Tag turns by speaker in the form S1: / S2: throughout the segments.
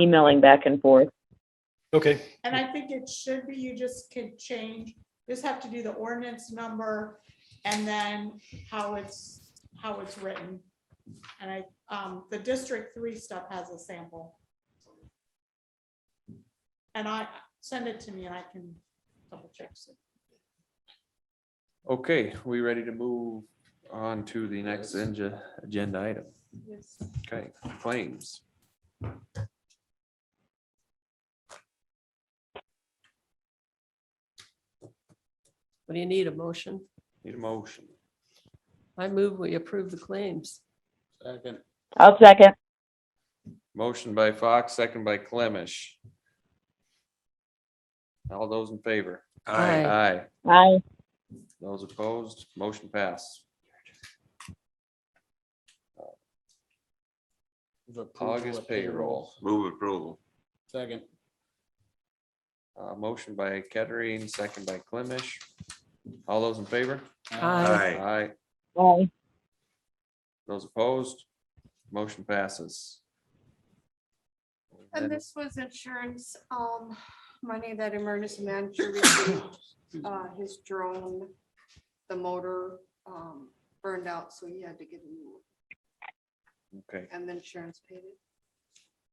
S1: emailing back and forth.
S2: Okay,
S3: And I think it should be, you just could change, just have to do the ordinance number and then how it's, how it's written. And I, um, the District Three stuff has a sample. And I, send it to me and I can double check.
S4: Okay, we ready to move on to the next agenda, agenda item?
S3: Yes.
S4: Okay, claims.
S5: What do you need, a motion?
S4: Need a motion.
S5: I move we approve the claims.
S6: Second.
S1: I'll second.
S4: Motion by Fox, second by Clemish. All those in favor?
S5: Aye.
S4: Aye.
S1: Aye.
S4: Those opposed, motion pass. August payroll.
S7: Move approval.
S6: Second.
S4: Uh, motion by Kettering, second by Clemish. All those in favor?
S6: Uh,
S5: Aye.
S4: Aye.
S1: Aye.
S4: Those opposed, motion passes.
S8: And this was insurance, um, money that emergency manager received, uh, his drone, the motor, um, burned out, so he had to get a new, one,
S4: Okay.
S8: and the insurance paid it.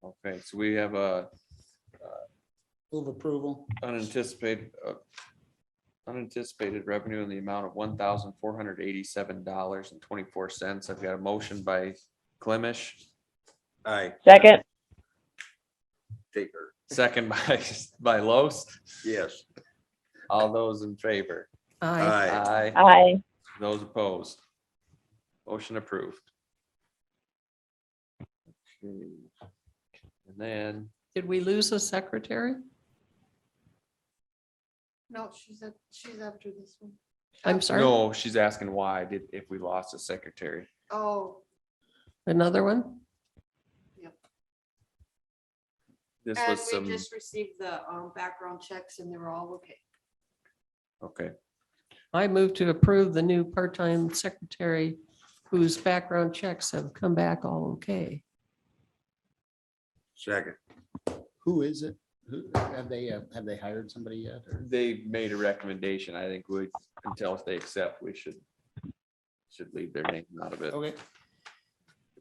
S4: Okay, so we have a
S6: Move approval.
S4: unanticipated, uh, unanticipated revenue in the amount of one thousand four hundred eighty-seven dollars and twenty-four cents. I've got a motion by Clemish,
S7: Aye.
S1: Second.
S7: Taker.
S4: second by, by Los.
S7: Yes.
S4: All those in favor?
S5: Aye.
S7: Aye.
S4: Aye.
S1: Aye.
S4: Those opposed? Motion approved. Okay. And then,
S5: Did we lose a secretary?
S8: No, she's at, she's after this one.
S5: I'm sorry,
S4: no, she's asking why did, if we lost a secretary.
S8: Oh,
S5: another one?
S4: This
S8: and
S4: was
S8: Uh, we
S4: some,
S8: just received the, um, background checks and they were all okay.
S4: okay,
S5: I move to approve the new part-time secretary whose background checks have come back all okay.
S7: Second.
S6: Who is it? Who, have they, uh, have they hired somebody yet? or-
S4: they made a recommendation. I think we, until they accept, we should, should leave their name out of it.
S6: Okay,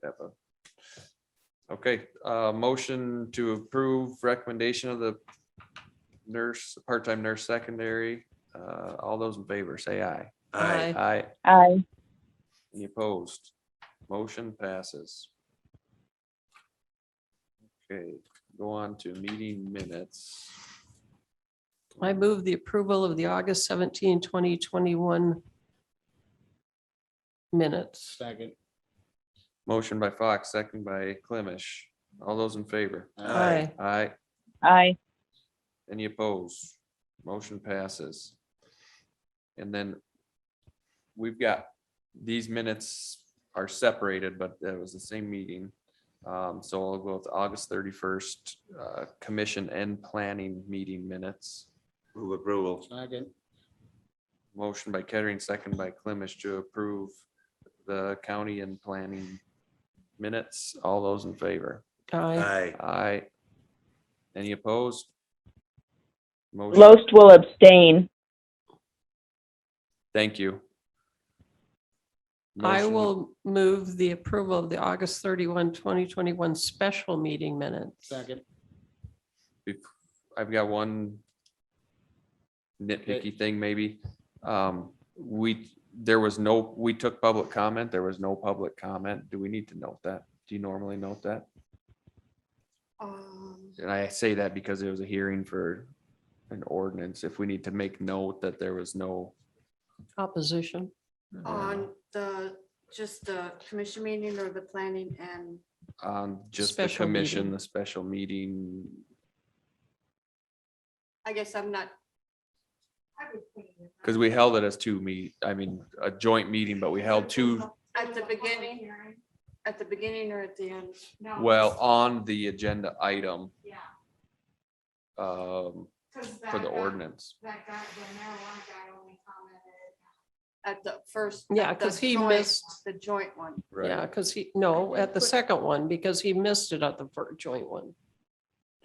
S4: Have a- Okay, uh, motion to approve recommendation of the nurse, part-time nurse secondary. Uh, all those in favor, say aye.
S7: Aye.
S4: Aye.
S1: Aye.
S4: Any opposed? Motion passes. Okay, go on to meeting minutes.
S5: I move the approval of the August 17, 2021 minutes.
S6: second.
S4: Motion by Fox, second by Clemish. All those in favor?
S6: Uh,
S7: Aye.
S4: Aye.
S1: Aye.
S4: Any opposed? Motion passes. And then we've got, these minutes are separated, but it was the same meeting. Um, So I'll go with August thirty-first, uh, commission and planning meeting minutes.
S7: Move approval.
S6: Second.
S4: Motion by Kettering, second by Clemish to approve the county and planning minutes. All those in favor?
S5: Aye.
S7: Aye.
S4: Aye. Any opposed? Motion-
S1: Loest will abstain.
S4: Thank you.
S5: I
S4: Motion-
S5: will move the approval of the August 31, 2021 special meeting minutes.
S6: Second.
S4: I've got one nitpicky thing maybe. Um, we, there was no, we took public comment. There was no public comment. Do we need to note that? Do you normally note that?
S8: Um,
S4: And I say that because it was a hearing for an ordinance. If we need to make note that there was no.
S5: Opposition.
S4: uh,
S8: on the, just the commission meeting or the planning and
S4: On just the
S5: Special
S4: commission,
S5: meeting.
S4: the special meeting.
S8: I guess I'm not. I would put it in.
S4: Cause we held it as two meet, I mean, a joint meeting, but we held two,
S8: At the beginning, at the beginning or at the end?
S3: No.
S4: well, on the agenda item,
S3: Yeah.
S4: um, for the ordinance.
S3: That guy, the marijuana guy only commented.
S8: At the first.
S5: Yeah,
S8: at the
S5: 'cause he
S8: joint-
S5: missed-
S8: The joint one.
S5: Yeah, because he, no, at the second one, because he missed it at the fir- joint one.